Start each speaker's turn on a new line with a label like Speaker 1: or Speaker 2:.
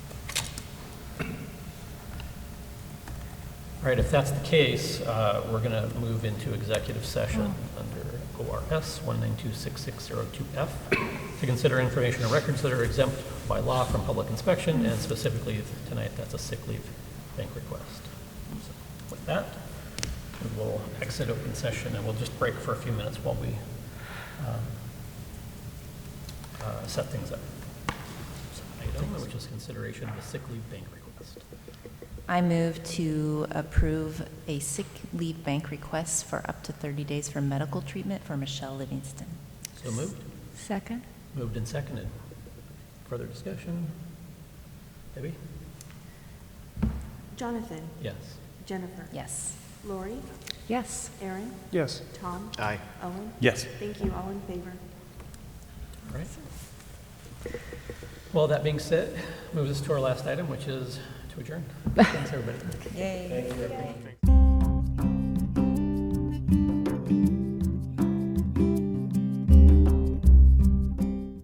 Speaker 1: All right, if that's the case, uh, we're going to move into executive session under ORS 1926602F to consider information or records that are exempt by law from public inspection, and specifically tonight, that's a sick leave bank request. So With that, we will exit open session, and we'll just break for a few minutes while we um, uh, set things up. So Item, which is consideration of a sick leave bank request.
Speaker 2: I move to approve a sick leave bank request for up to 30 days for medical treatment for Michelle Livingston.
Speaker 1: So moved?
Speaker 3: Second?
Speaker 1: Moved and seconded. Further discussion? Debbie?
Speaker 4: Jonathan,
Speaker 1: Yes.
Speaker 4: Jennifer.
Speaker 2: Yes.
Speaker 4: Lori,
Speaker 3: Yes.
Speaker 4: Aaron,
Speaker 5: Yes.
Speaker 4: Tom,
Speaker 6: Aye.
Speaker 4: Owen.
Speaker 5: Yes.
Speaker 4: Thank you, all in favor.
Speaker 1: All right. Well, that being said, moves us to our last item, which is to adjourn. Thanks, everybody.
Speaker 2: Yay.